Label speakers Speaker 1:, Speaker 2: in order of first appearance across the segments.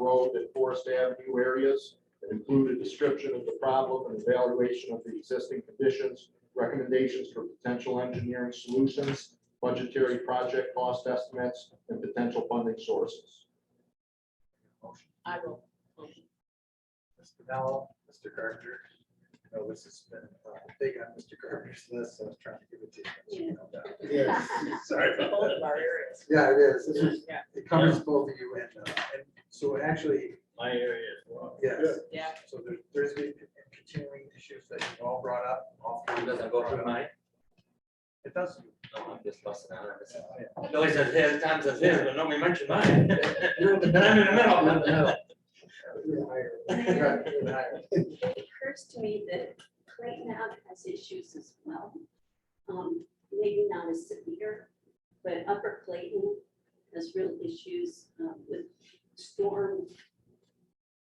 Speaker 1: Road and Forest Avenue areas, and include a description of the problem and evaluation of the existing conditions, recommendations for potential engineering solutions, budgetary project cost estimates, and potential funding sources.
Speaker 2: I will.
Speaker 3: Mr. Dowell, Mr. Gardner. I know this has been uh, big on Mr. Gardner's list, so I was trying to give it to you. no doubt.
Speaker 2: Yes.
Speaker 3: Sorry about
Speaker 2: Both of
Speaker 3: that.
Speaker 2: our areas.
Speaker 3: Yeah, it is. This is-
Speaker 2: Yeah.
Speaker 3: It covers both of you and, uh, and so actually,
Speaker 4: My area as well.
Speaker 3: yes.
Speaker 2: Yeah.
Speaker 3: So there- there's been continuing issues that you all brought up. all three of
Speaker 4: It
Speaker 3: you
Speaker 4: doesn't go through
Speaker 3: brought up.
Speaker 4: mine.
Speaker 3: It does.
Speaker 4: No, I'm just busting out. It's-
Speaker 3: Yeah.
Speaker 4: Billy says his, Tom says his, but nobody mentioned mine. Then I'm in the middle.
Speaker 3: Even higher. Right, even higher.
Speaker 5: It occurs to me that Clayton Ave has issues as well. Um, maybe not as severe, but Upper Clayton has real issues uh, with storm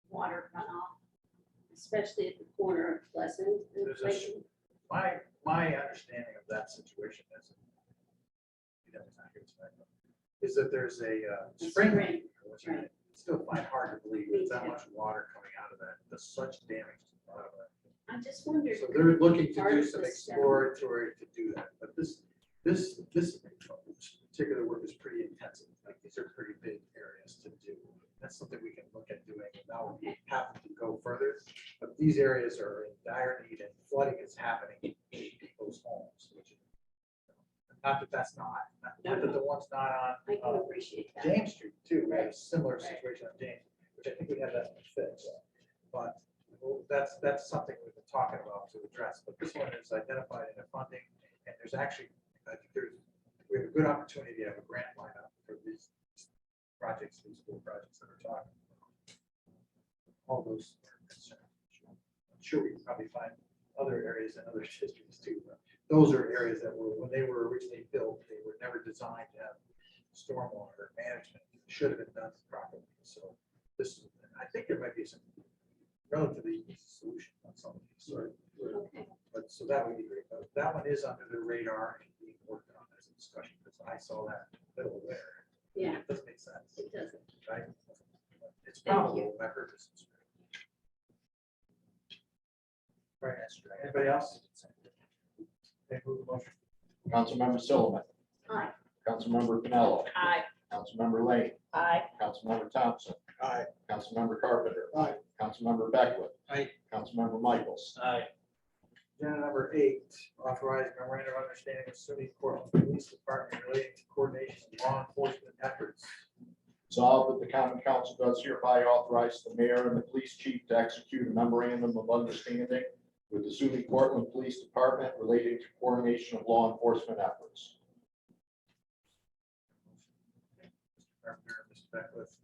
Speaker 5: water runoff, especially at the corner of Pleasant and
Speaker 3: There's a s-
Speaker 5: Clayton.
Speaker 3: My, my understanding of that situation is you know, it's not here tonight, but is that there's a uh, spring leak, which I
Speaker 5: right.
Speaker 3: still find hard to believe,
Speaker 5: Me
Speaker 3: there's that
Speaker 5: too.
Speaker 3: much water coming out of that, there's such damage to the bottom of that.
Speaker 5: I just wondered.
Speaker 3: So they're looking to
Speaker 5: Part
Speaker 3: do
Speaker 5: of
Speaker 3: some
Speaker 5: this, yeah.
Speaker 3: exploratory to do that, but this, this, this particular work is pretty intensive. Like, these are pretty big areas to do. That's something we can look at doing. and Now we have to go further, but these areas are in dire need and flooding is happening in people's homes, which is not that that's not, not not that the one's not
Speaker 5: I
Speaker 3: on,
Speaker 5: can
Speaker 3: uh,
Speaker 5: appreciate that.
Speaker 3: James Street too, we had a similar
Speaker 5: Right.
Speaker 3: situation on James, which I think we had that fixed. But well, that's, that's something we've been talking about to address, but this one is identified in the funding, and there's actually, I think there's, we have a good opportunity to have a grant lineup for these projects, these school projects that we're talking. about. All those. are concerns. I'm Sure, we can probably find other areas in other districts too, but those are areas that were, when they were originally built, they were never designed to have stormwater management should have been done properly. So this, I think there might be some relatively easy solution on some of these, sort of-
Speaker 5: Okay,
Speaker 3: but so that would be great. But that one is under the radar and being worked on as a discussion, because I saw that middle there.
Speaker 5: yeah,
Speaker 3: It doesn't make sense,
Speaker 5: it doesn't.
Speaker 3: right? It's
Speaker 5: Thank you.
Speaker 3: probable, I heard this. is great. Right, that's right. Anybody else? They move the motion.
Speaker 1: Councilmember Sullivan,
Speaker 5: Aye,
Speaker 1: Councilmember Pinello,
Speaker 2: Aye.
Speaker 1: Councilmember Lane,
Speaker 2: Aye.
Speaker 1: Councilmember Thompson,
Speaker 3: Aye.
Speaker 1: Councilmember Carpenter.
Speaker 3: Aye.
Speaker 1: Councilmember Beckwith.
Speaker 3: Aye.
Speaker 1: Councilmember Michaels.
Speaker 4: Aye.
Speaker 3: Agenda number eight, authorize memorandum of understanding with SUNY Portland Police Department relating to coordination of law enforcement efforts.
Speaker 1: Resolved that the common council does hereby authorize the mayor and the police chief to execute a memorandum of understanding with the SUNY Portland Police Department relating to coordination of law enforcement efforts.
Speaker 3: Mr. Carpenter, Mr. Beckwith.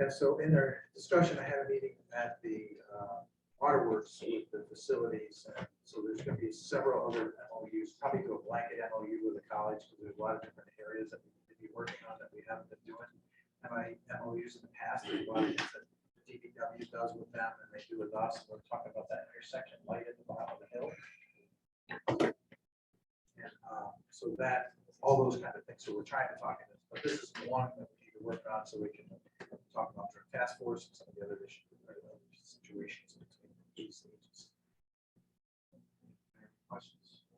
Speaker 3: And so in their discussion, I had a meeting at the uh, waterworks with the facilities. and So there's going to be several other MOUs, probably do a blanket MOU with the college because there's a lot of different areas that we could be working on that we haven't been doing. And I MOUs in the past, there's a lot of things that DPW does with them and they do with us. We're talking about that intersection light at the bottom of the hill. And uh, so that all those kind of things. So we're trying to talk in this, but this is one that we need to work on so we can talk about our task force and some of the other issues, or other situations between these agencies. Any Questions?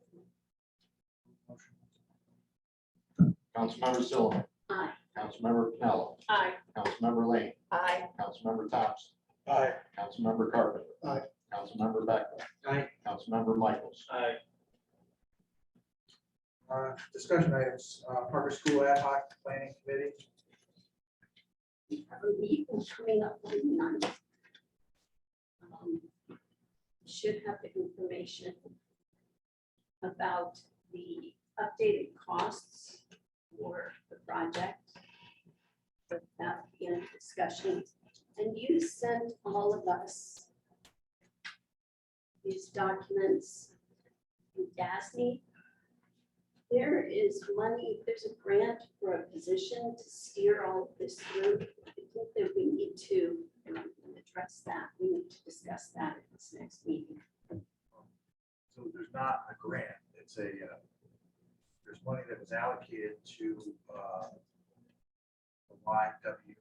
Speaker 3: Motion.
Speaker 1: Councilmember Sullivan,
Speaker 5: aye,
Speaker 1: Councilmember Pinello,
Speaker 2: Aye.
Speaker 1: Councilmember Lane,
Speaker 2: Aye.
Speaker 1: Councilmember Thompson,
Speaker 3: Aye.
Speaker 1: Councilmember Carpenter.
Speaker 3: Aye.
Speaker 1: Councilmember Beckwith,
Speaker 3: Aye.
Speaker 1: Councilmember Michaels.
Speaker 4: Aye.
Speaker 3: Uh, discussion items, uh, Parker School Ad hoc Planning Committee.
Speaker 5: we have a meeting coming up on the ninth. Um, Should have the information about the updated costs for the project. But that in discussion, and you sent all of us these documents in DASNY. There is money, there's a grant for a position to steer all of this through. I think that we need to um, address that. We need to discuss that at this next meeting.
Speaker 3: Um, So there's not a grant, it's a, uh, there's money that was allocated to uh, the YW